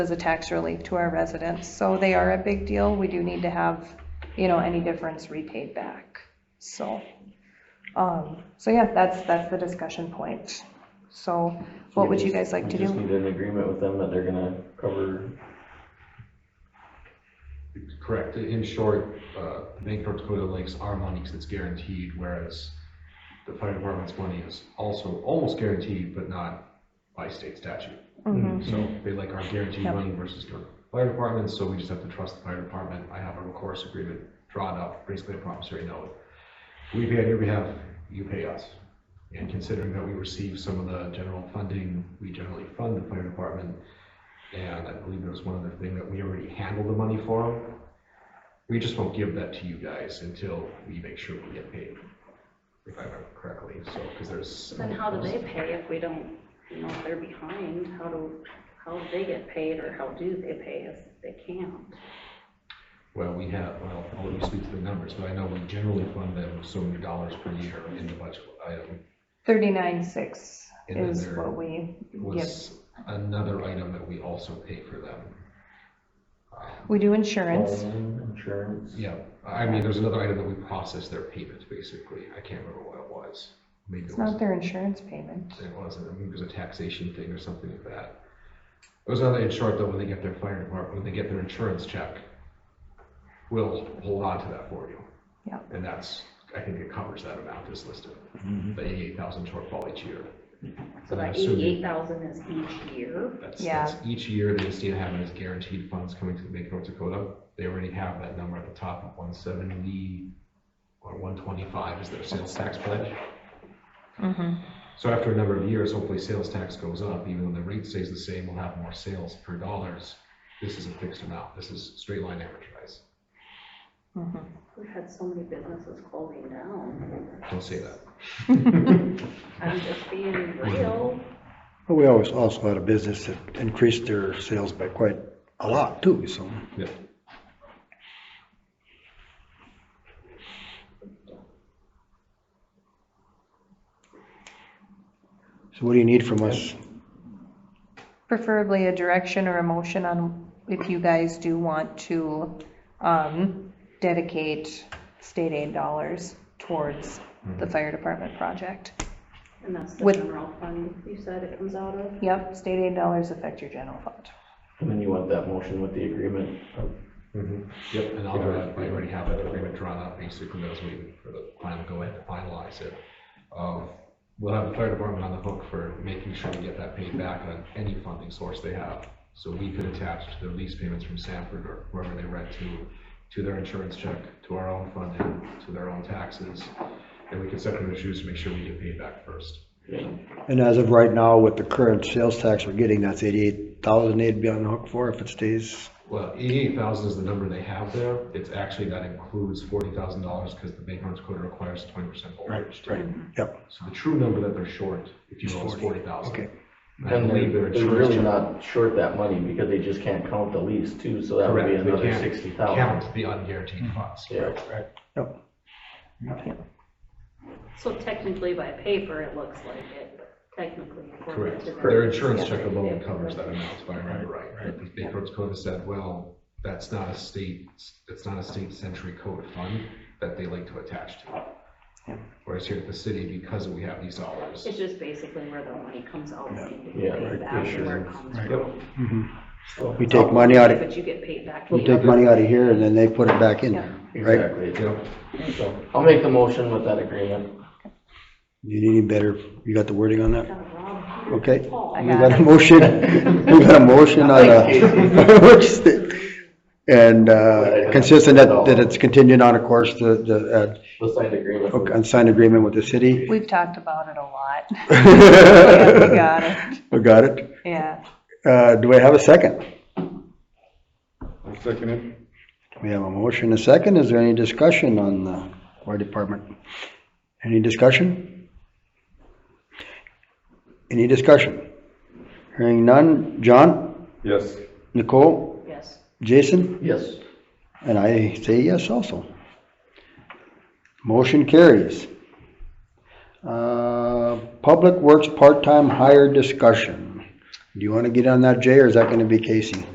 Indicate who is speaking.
Speaker 1: as a tax relief to our residents. So they are a big deal. We do need to have, you know, any difference repaid back. So, um, so yeah, that's, that's the discussion point. So what would you guys like to
Speaker 2: We just
Speaker 1: do?
Speaker 2: need an agreement with them that they're gonna cover,
Speaker 3: Correct. In short, uh, Bank North Dakota Links our money because it's guaranteed, whereas the fire department's money is also almost guaranteed, but not by state statute.
Speaker 1: Mhm.
Speaker 3: So they like our guaranteed
Speaker 1: Yep.
Speaker 3: money versus the fire department, so we just have to trust the fire department. I have a recourse agreement drawn up, basically a promissory note. We pay on your behalf, you pay us. And considering that we receive some of the general funding, we generally fund the fire department. And I believe there was one other thing that we already handled the money for. We just won't give that to you guys until we make sure we get paid, if I remember correctly, so, because there's.
Speaker 4: So Then how do they pay if we don't, you know, if they're behind, how do, how do they get paid or how do they pay us if they can't?
Speaker 3: Well, we have, well, I'll let you speak to the numbers, but I know we generally fund them so many dollars per year in the budget item.
Speaker 1: Thirty-nine six
Speaker 3: And then
Speaker 1: is
Speaker 3: there
Speaker 1: what we, yep.
Speaker 3: Was another item that we also pay for them.
Speaker 1: We do insurance.
Speaker 2: home insurance.
Speaker 3: Yeah, I mean, there's another item that we process their payments, basically. I can't remember what it was. Maybe it
Speaker 1: It's
Speaker 3: was,
Speaker 1: not their insurance payment.
Speaker 3: it wasn't, I mean, it was a taxation thing or something like that. It was another, in short, though, when they get their fire department, when they get their insurance check, we'll hold on to that for you.
Speaker 1: Yeah.
Speaker 3: And that's, I think it covers that amount that's listed, the eighty-eight thousand shortfall each year.
Speaker 4: So
Speaker 3: I'm
Speaker 4: that
Speaker 3: assuming-
Speaker 4: eighty-eight thousand is each year?
Speaker 3: That's,
Speaker 1: Yeah.
Speaker 3: that's each year the state having its guaranteed funds coming to the Bank of North Dakota. They already have that number at the top of one seventy or one twenty-five is their sales tax pledge.
Speaker 1: Mhm.
Speaker 3: So after a number of years, hopefully sales tax goes up, even though the rate stays the same, we'll have more sales per dollars. This is a fixed amount. This is straight line average price.
Speaker 1: Mhm.
Speaker 4: We've had so many businesses closing down.
Speaker 3: Don't say that.
Speaker 4: I'm just being real.
Speaker 5: Well, we always also had a business that increased their sales by quite a lot too, so.
Speaker 3: Yeah.
Speaker 5: So what do you need from us?
Speaker 1: Preferably a direction or a motion on if you guys do want to, um, dedicate state aid dollars towards the fire department project.
Speaker 4: And that's the
Speaker 1: With-
Speaker 4: general fund you said it comes out of?
Speaker 1: Yep, state aid dollars affect your general fund.
Speaker 2: And then you want that motion with the agreement.
Speaker 3: Yep, and I'll, I already have that agreement drawn up, basically, I was waiting for the final go ahead to finalize it. Um, We'll have the fire department on the hook for making sure we get that paid back on any funding source they have. So we could attach to their lease payments from Sanford or whoever they rent to, to their insurance check, to our own funding, to their own taxes. And we can set them issues to make sure we get paid back first.
Speaker 2: Yeah.
Speaker 5: And as of right now, with the current sales tax we're getting, that's eighty-eight thousand they'd be on the hook for if it stays.
Speaker 3: Well, eighty-eight thousand is the number they have there. It's actually, that includes forty thousand dollars because the Bank of North Dakota requires twenty percent overage.
Speaker 5: Right, yep,
Speaker 3: So the true number that they're short, if you
Speaker 5: Is
Speaker 3: will, is
Speaker 5: 40.
Speaker 3: forty thousand.
Speaker 5: okay.
Speaker 3: I
Speaker 2: And
Speaker 3: believe their
Speaker 2: they're, they're really
Speaker 3: insurance.
Speaker 2: not short that money because they just can't count the lease too, so that would
Speaker 3: Correct,
Speaker 2: be
Speaker 3: they
Speaker 2: another
Speaker 3: can't
Speaker 2: sixty thousand.
Speaker 3: count the unguaranteed funds.
Speaker 2: Yeah,
Speaker 5: Yep.
Speaker 4: So technically by paper, it looks like it, but technically. according
Speaker 3: Correct.
Speaker 4: to the-
Speaker 3: Their insurance check
Speaker 4: Yeah.
Speaker 3: alone covers that amount, if I remember right. But the State Codes Code said, well, that's not a state, that's not a state century code fund that they like to attach to. Whereas here at the city, because we have these dollars,
Speaker 4: It's just basically where the money comes out. and
Speaker 2: Yeah,
Speaker 4: pays
Speaker 2: right,
Speaker 4: back and where it
Speaker 2: insurance.
Speaker 4: comes
Speaker 5: Right.
Speaker 4: from.
Speaker 2: so,
Speaker 5: We take money out of,
Speaker 4: But you get paid back.
Speaker 5: we'll
Speaker 4: the
Speaker 5: take
Speaker 4: other-
Speaker 5: money out of here and then they put it back in there, right?
Speaker 2: exactly.
Speaker 3: you know,
Speaker 2: So, I'll make the motion with that agreement.
Speaker 5: You need any better, you got the wording on that?
Speaker 4: Kind of rob Peter
Speaker 5: Okay.
Speaker 4: to Paul.
Speaker 1: I
Speaker 5: We got
Speaker 1: got
Speaker 5: a
Speaker 1: it.
Speaker 5: motion, we got a motion on a, what's the- and, uh, consistent that, that it's contingent on, of course, the, the,
Speaker 2: The signed agreement.
Speaker 5: uh,
Speaker 2: with-
Speaker 5: on signed agreement with the city.
Speaker 1: We've talked about it a lot. Yeah, we
Speaker 5: We
Speaker 1: got it.
Speaker 5: got it.
Speaker 1: Yeah.
Speaker 5: Uh, do I have a second?
Speaker 6: Second it.
Speaker 5: We have a motion, a second. Is there any discussion on the fire department? Any discussion? Any discussion? Hearing none. John,
Speaker 6: Yes.
Speaker 5: Nicole,
Speaker 4: Yes.
Speaker 5: Jason?
Speaker 2: Yes,
Speaker 5: And I say yes also. Motion carries. Uh, Public Works part-time hire discussion. Do you want to get on that, Jay, or is that going to be Casey?